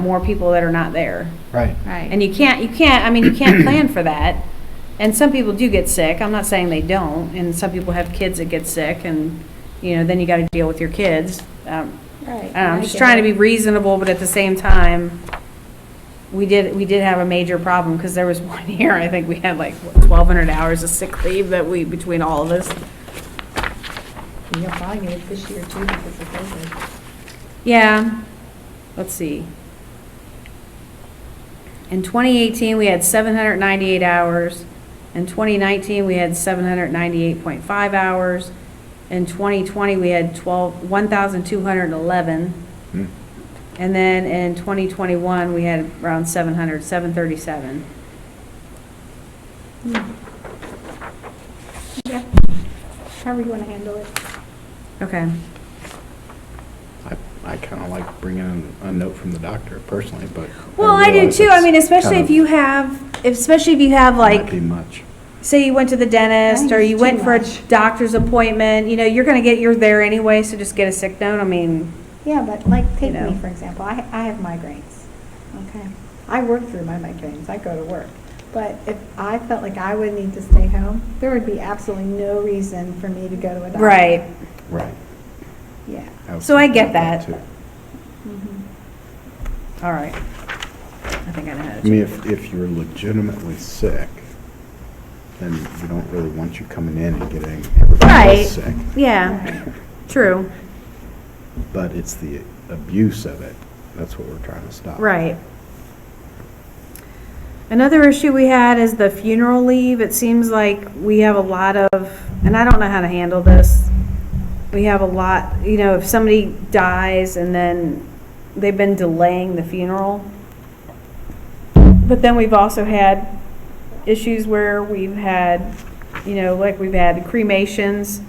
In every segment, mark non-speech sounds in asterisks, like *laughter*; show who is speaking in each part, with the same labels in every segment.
Speaker 1: more people that are not there.
Speaker 2: Right.
Speaker 1: And
Speaker 3: Right.
Speaker 1: you can't, you can't, I mean, you can't plan for that. And some people do get sick, I'm not saying they don't, and some people have kids that get sick, and, you know, then you gotta deal with your kids. Um,
Speaker 4: Right.
Speaker 1: I don't know, I'm just trying to be reasonable, but at the same time, we did, we did have a major problem, because there was *laughs* one year, I think we had like twelve hundred hours of sick leave that we, between all of us.
Speaker 4: You're probably gonna get this year too because of COVID.
Speaker 1: Yeah, let's see. In 2018, we had 798 hours. In 2019, we had 798.5 hours. In 2020, we had 12, 1,211.
Speaker 2: Hmm.
Speaker 1: And then in 2021, we had around 700, 737.
Speaker 4: Yeah. However you wanna handle it.
Speaker 1: Okay.
Speaker 2: I, I kind of like bringing in a note from the doctor personally, but.
Speaker 1: Well, I do
Speaker 2: realize
Speaker 1: too. I
Speaker 2: it's
Speaker 1: mean, especially
Speaker 2: kind
Speaker 1: if you
Speaker 2: of-
Speaker 1: have, especially if you have
Speaker 2: might
Speaker 1: like
Speaker 2: Be much.
Speaker 1: say you went to the dentist or
Speaker 4: Thanks,
Speaker 1: you
Speaker 4: too
Speaker 1: went for a
Speaker 4: much.
Speaker 1: doctor's appointment, you know, you're gonna get, you're there anyway, so just get a sick note, I mean,
Speaker 4: Yeah, but like, take
Speaker 1: You know.
Speaker 4: me, for example, I, I have migraines, okay? I work through my migraines, I go to work. But if I felt like I would need to stay home, there would be absolutely no reason for me to go to a doctor.
Speaker 1: Right.
Speaker 2: Right.
Speaker 4: Yeah.
Speaker 2: was
Speaker 1: So I
Speaker 2: thinking
Speaker 1: get
Speaker 2: about
Speaker 1: that.
Speaker 2: too.
Speaker 4: Mhm.
Speaker 1: all right. I think I know how
Speaker 2: I mean,
Speaker 1: to.
Speaker 2: if, if you're legitimately sick, then you don't really want you coming in and getting everybody
Speaker 1: Right.
Speaker 2: else sick.
Speaker 1: Yeah, true,
Speaker 2: But it's the abuse of it. That's what we're trying to stop.
Speaker 1: right. Another issue we had is the funeral leave. It seems like we have a lot of, and I don't know how to handle this. We have a lot, you know, if somebody dies and then they've been delaying the funeral. But then we've also had issues where we've had, you know, like we've had cremations,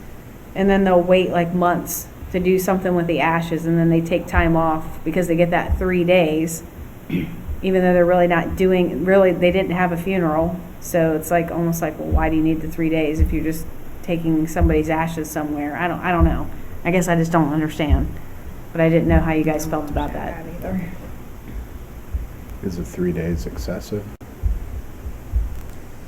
Speaker 1: and then they'll wait like months to do something with the ashes, and then they take time off because they get that three days, even though they're really not doing, really, they didn't have a funeral. So it's like, almost like, well, why do you need the three days if you're just taking somebody's ashes somewhere? I don't, I don't know. I guess I just don't understand. But I didn't know how you guys felt about *laughs* that.
Speaker 4: either.
Speaker 2: Is it three days excessive?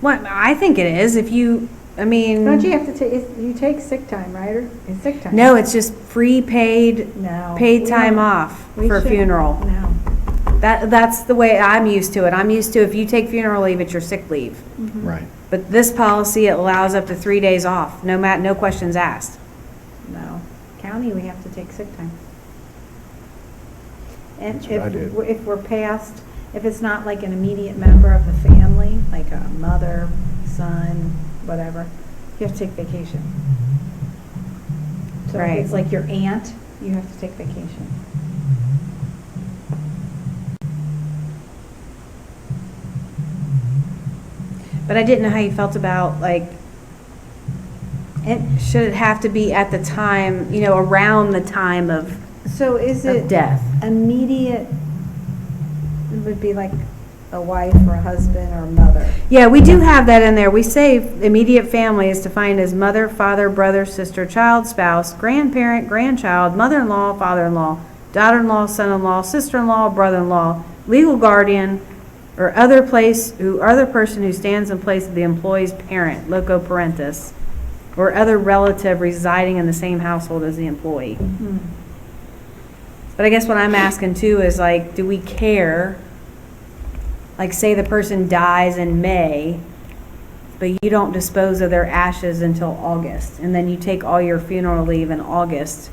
Speaker 1: Well, I think it is. If you, I mean.
Speaker 4: Don't you have to take, you take sick time, right, or, it's sick time?
Speaker 1: No, it's just free paid,
Speaker 4: No.
Speaker 1: paid
Speaker 4: We
Speaker 1: time
Speaker 4: don't-
Speaker 1: off
Speaker 4: we
Speaker 1: for a
Speaker 4: shouldn't.
Speaker 1: funeral.
Speaker 4: No.
Speaker 1: That, that's the way I'm used to it. I'm used to if you take funeral leave, it's your sick leave.
Speaker 2: Right.
Speaker 1: But this policy allows up to three days off, no mat, no questions asked.
Speaker 4: No. County, we have to take sick time. And
Speaker 2: That's what I
Speaker 4: if,
Speaker 2: did.
Speaker 4: w- if we're past, if it's not like an immediate member of the family, like a mother, son, whatever, you have to take vacation. So
Speaker 1: Right.
Speaker 4: if it's like your aunt, you have to take vacation.
Speaker 1: But I didn't know how you felt about, like, it, should it have to be at the time, you know, around the time of,
Speaker 4: So is
Speaker 1: of
Speaker 4: it
Speaker 1: death?
Speaker 4: immediate, it would be like a wife or a husband or a mother.
Speaker 1: Yeah, we do have that in there. We say immediate family is defined as mother, father, brother, sister, child, spouse, grandparent, grandchild, mother-in-law, father-in-law, daughter-in-law, son-in-law, sister-in-law, brother-in-law, legal guardian, or other place, who, other person who stands in place of the employee's parent, loco parentis, or other relative residing in the same household as the employee. But I guess what I'm asking too is like, do we care? Like, say the person dies in May, but you don't dispose of their ashes until August, and then you take all your funeral leave in August,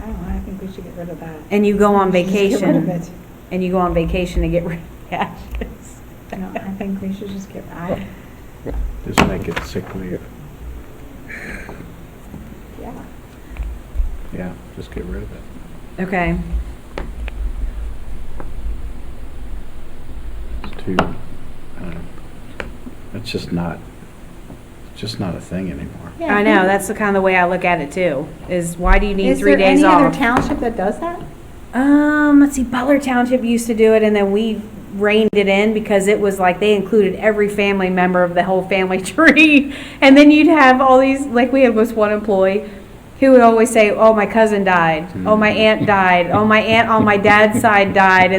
Speaker 4: I don't know, I think we should get rid of that.
Speaker 1: and you go
Speaker 4: *laughs*
Speaker 1: on
Speaker 4: We should just Get rid of
Speaker 1: vacation,
Speaker 4: it.
Speaker 1: and you go on vacation to get rid of the ashes.
Speaker 4: No, I think we should just get,
Speaker 1: *laughs*
Speaker 4: I,
Speaker 2: Just make it sick leave.
Speaker 4: yeah.
Speaker 2: Yeah, just get rid of it.
Speaker 1: Okay,
Speaker 2: It's too, I don't know. It's um, just not, it's just not a thing anymore.
Speaker 1: I know, that's the kind of way I look at it too, is why do you need
Speaker 4: Is
Speaker 1: three
Speaker 4: there
Speaker 1: days
Speaker 4: any other
Speaker 1: off?
Speaker 4: township that does that?
Speaker 1: Um, let's see, Butler Township used to do it, and then we reined it in because it was like they included every family member of the whole family *laughs* tree. And then you'd have all these, like we had was one employee who would always say, oh, my cousin died, oh, my aunt died, oh, my aunt on my dad's side died, and